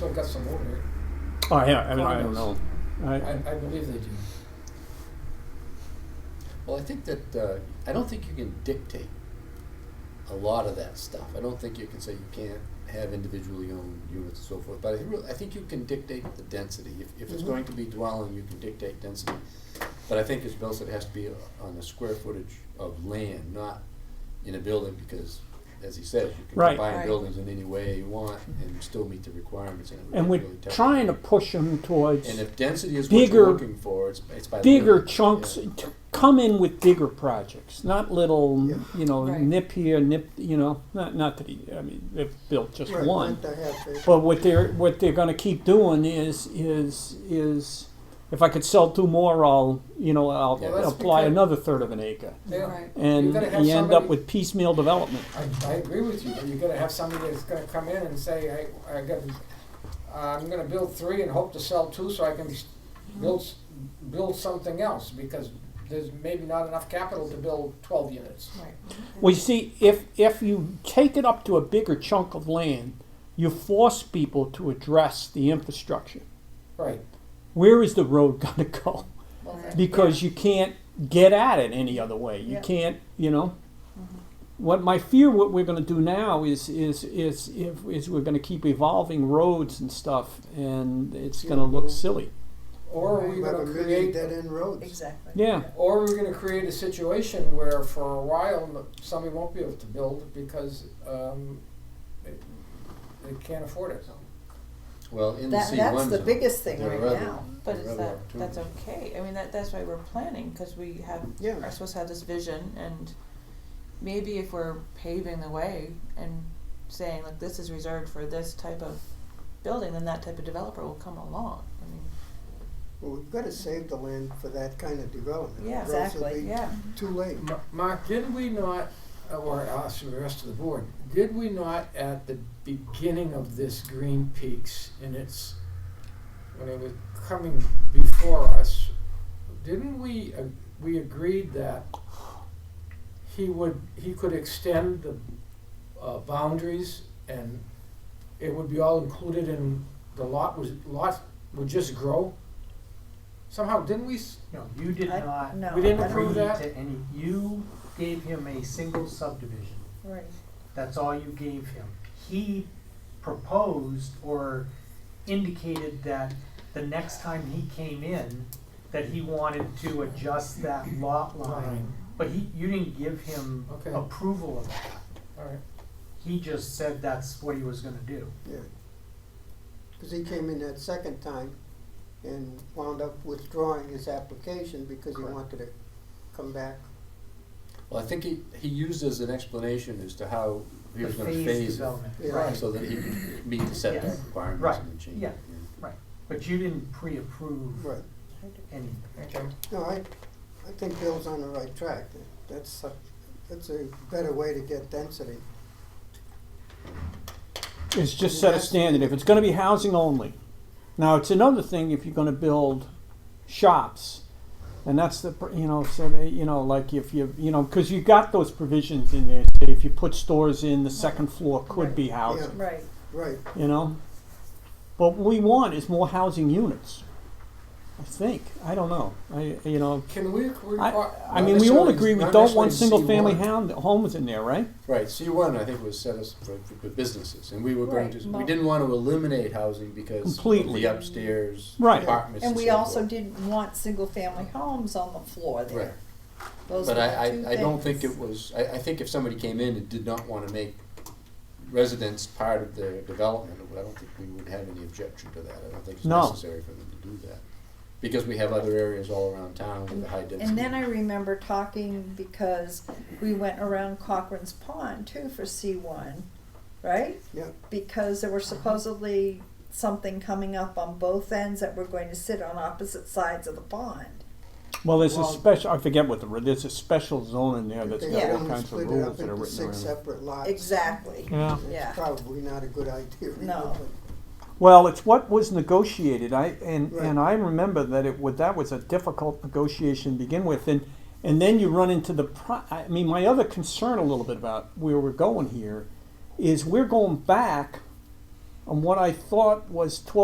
They've got some order. Oh, yeah, I mean, I, don't know. I, I, I believe they do. Well, I think that, uh, I don't think you can dictate a lot of that stuff. I don't think you can say you can't have individually owned units and so forth, but I really, I think you can dictate the density. If, if Mm-hmm. it's Mhm. going to be dwelling, you can dictate density. But I think as Bill said, it has to be on the square footage of land, not in a building, because as he says, you can Right. combine Right. buildings in any way you want and still meet the requirements. it would and be we're really tough. trying to push them And towards if density is what Bigger- you're looking for, it's, it's by. the bigger building. chunks, Yeah. to come in with bigger projects, not little, Yeah. you know, Right. nip here, nip, you know, not, not that he, I mean, they've built just Right, one. like they have the- But what they're what they're going to keep doing is is is if I could sell two more, I'll you know I'll Yeah, that's apply because- another third of an acre, They are. Right. and You're you gonna have end somebody- up with piecemeal development. I, I agree with you, but you gotta have somebody that's gonna come in and say, I, I got, uh, I'm gonna build three and hope to sell two so I can s- build, s- build something else, because there's maybe not enough capital to build twelve units. Right. Well, you see, if if you take it up to a bigger chunk of land, you force people to address the infrastructure. Right. Where is the road going to go? because you can't get at it any other way. You Yeah. can't, you know. What my fear, what we're going to do now is is is if is we're going to keep evolving roads and stuff, and it's going to look silly. Or are we You have a gonna million create, dead end roads. Exactly. Yeah. or are we gonna create a situation where for a while, no- somebody won't be able to build because, um, it- they can't afford it. Well, in the That, C1 that's the zone. biggest thing They're right rather- now. But is rather that, that's opportunity. okay, I mean, that, that's why we're planning, cause we have, Yeah. are supposed to have this vision and maybe if we're paving the way and saying, like, this is reserved for this type of building, then that type of developer will come along, I mean, Well, we've gotta save the land for that kind of development. Yeah, or else it'll exactly, be yeah. Too late. Ma- Mark, did we not, or us, and the rest of the board, did we not at the beginning of this Green Peaks and its, when it was coming before us, didn't we, uh, we agreed that he would, he could extend the uh, boundaries and it would be all included in, the lot was, lot would just grow? Somehow, didn't we, s- No, you did I- not no, We didn't I don't- approve agree that? to any, you gave him a single subdivision. Right. That's all you gave him. He proposed or indicated that the next time he came in, that he wanted to adjust that lot line. But he, you didn't give him Okay. Oh. approval of that. all right, He just said that's what he was gonna do. Yeah. Because he came in that second time and wound up withdrawing his application because he Correct. wanted to come back. Well, I think he, he used as an explanation as to how he The was gonna phased phase it, development. Yeah. Right. so that he could meet the setback Yes. requirements Right. and then change Yeah. it. But you didn't pre-approve Right. anything. okay. No, I, I think Bill's on the right track. That's, a- that's a better way to get density. It's just set a standard. If it's going to be housing only, now it's another thing if you're going to build shops, and that's the pr- you know so they, you know like if you you know because you got those provisions in there. Say if you put stores in, the second floor could be housing. Yeah. Right. Right. you know. But what we want is more housing units. I think. I don't know. I you know. Can we, we, I, I mean, we all agree we don't want single-family hound, homes in there, right? Right, C one, I think, was set as for, for the businesses, and we were going Right, to, we well- didn't wanna eliminate housing because of Completely. the upstairs Right. apartments And and we so also forth. didn't want single-family homes on the floor Right, there. Those but were I, the two I, I don't think things. it was, I, I think if somebody came in and did not wanna make residents part of their development, I don't think we would have any objection to that, I don't think it's No. necessary for them to do that. Because we have other areas all around town with a high density. And then I remember talking because we went around Cochrane's Pond too for C one, right? Yeah. Because there were supposedly something coming up on both ends that were going to sit on opposite sides of the pond. Well, there's a Well- special. I forget what the re- there's a special zone in there that's They got Yeah. all only kinds split of it rules up that are into written six around. separate lots. Exactly. Yeah. Yeah. It's probably not a good idea. either, No. but- Well, it's what was negotiated. I and Right. and I remember that it would that was a difficult negotiation to begin with, and and then you run into the. Pro- I mean, my other concern a little bit about where we're going here is we're going back on what I thought was twelve